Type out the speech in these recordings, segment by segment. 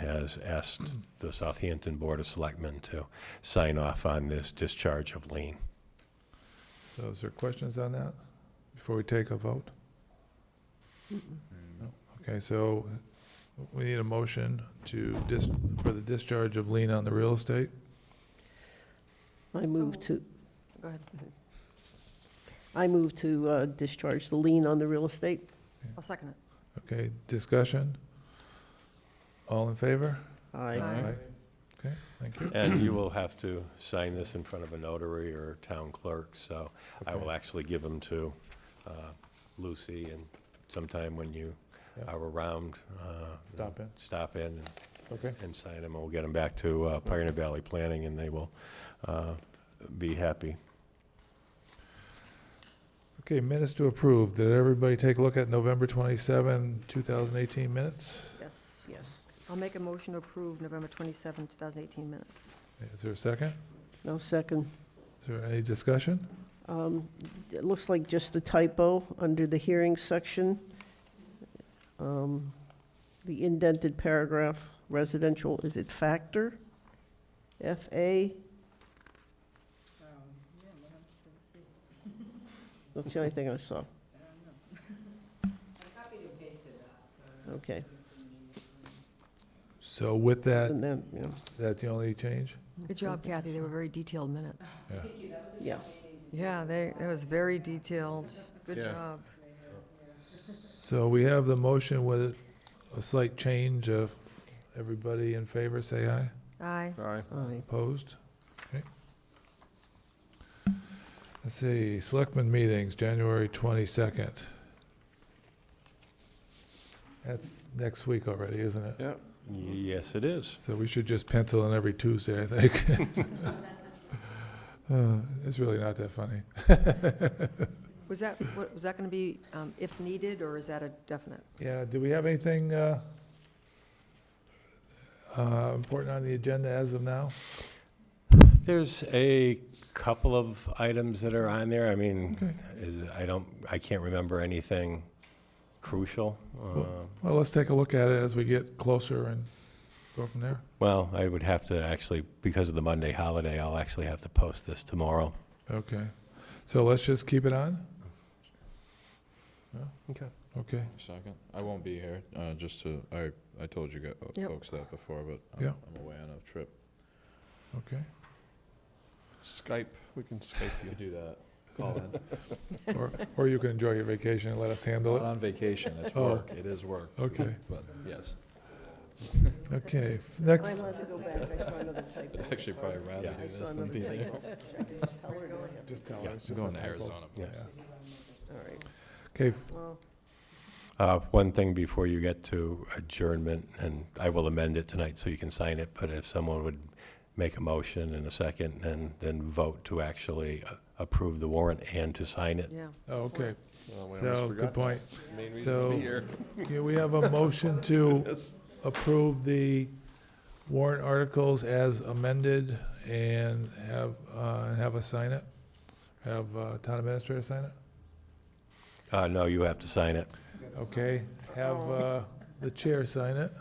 has asked the Southampton Board of Selectmen to sign off on this discharge of lien. So is there questions on that before we take a vote? Okay, so we need a motion to dis, for the discharge of lien on the real estate. I move So- to, Go ahead. I move to uh, discharge the lien on the real estate. I'll second it. Okay, discussion? All in favor? Aye. Aye. Okay, thank you. And you will have to sign this in front of a notary or town clerk, so I will Okay. actually give them to uh, Lucy, and sometime when you Yeah. are around, uh, Stop in, stop in and okay? and sign them, and we'll get them back to uh, Pioneer Valley Planning, and they will uh, be happy. Okay, minutes to approve. Did everybody take a look at November 27, 2018 minutes? Yes. Yes. I'll make a motion to approve November 27, 2018 minutes. Is there a second? No second. Is there any discussion? Um, It looks like just the typo under the hearing section. Um, The indented paragraph, residential, is it factor? F-A? That's the only thing I saw. Okay, So with that, and then, yeah, that's the only change? Good job, Kathy. They were very detailed minutes. Yeah. yeah. Yeah, they, it was very detailed. Good Yeah. job. So we have the motion with a slight change of, everybody in favor, say aye. Aye. Aye. Aye. Opposed? Okay. Let's see, Selectmen meetings, January 22nd. That's next week already, isn't it? Yep. Yes, it is. So we should just pencil in every Tuesday, I think. Uh, It's really not that funny. Was that, what, was that going to be um, if needed, or is that a definite? Yeah, do we have anything uh, uh, important on the agenda as of now? There's a couple of items that are on there. I mean, Okay. is, it- I don't, I can't remember anything crucial. Hmm. Uh, Well, let's take a look at it as we get closer and go from there. Well, I would have to actually, because of the Monday holiday, I'll actually have to post this tomorrow. Okay, so let's just keep it on? Okay. Okay, Second. I won't be here, uh, just to, I, I told you gu- Yep. folks that before, but Yeah. I'm, I'm away on a trip. Okay. Skype, we can Skype you. Do that. Call in. or, or you can enjoy your vacation and let us handle Not it. on vacation, it's Oh. work, it is work. Okay. But, yes, Okay, f- next, I want to go back, I saw another typo. actually probably rather Yeah. do I saw this than another be there. typo. Should I just tell her to have to- just tell Yeah, her, it's I'm just a going to typo. Arizona. Yeah. All right, Okay, well, Uh, One thing before you get to adjournment, and I will amend it tonight so you can sign it, but if someone would make a motion in a second and then vote to actually uh, approve the warrant and to sign it. Yeah. oh, okay, we so, good point. Main reason to be So- here. Can we have a motion to approve the warrant articles as amended and have, uh, and have us sign it? Have, uh, town administrator sign it? Uh, No, you have to sign it. Okay, have, Oh. uh, the chair sign it.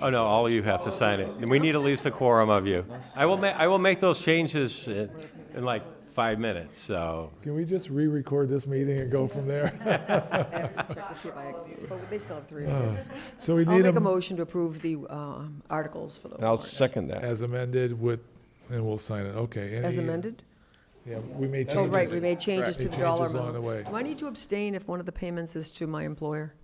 Oh, no, all of you have to sign it. And we need at least a quorum of you. I will ma, I will make those changes in in like five minutes, so. Can we just re-record this meeting and go from there? I have to check to see if I, but they still have three minutes. So we I'll Oh. need make a them motion to approve the um, articles for the I'll warrant. second that. as amended with, and we'll sign it, okay. As any- amended? Yeah, we made Oh, changes. right, we made changes Correct. to Made the dollar changes along the amount. way. Do I need to abstain if one of the payments is to my employer?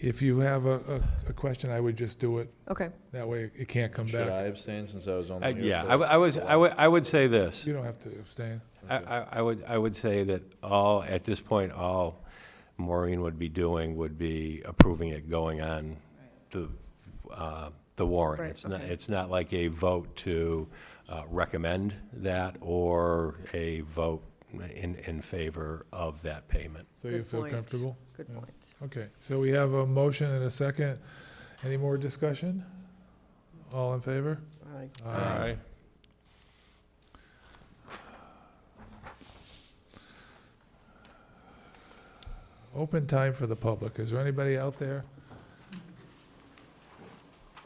If you have a, a, a question, I would just do it. Okay. That way it can't come Should I back. abstain since I was Uh, only here? Yeah, for I w- I was, the I would, I would say this. You don't have to abstain. I, I I would, I would say that all, at this point, all Maureen would be doing would be approving it going on the, uh, the warrant. Right, It's not, okay. it's not like a vote to uh, recommend that or a vote in, in favor of that payment. So you Good feel point. comfortable? Good Yeah. point. Okay, so we have a motion and a second. Any more discussion? All in favor? all right. Aye. Open time for the public. Is there anybody out there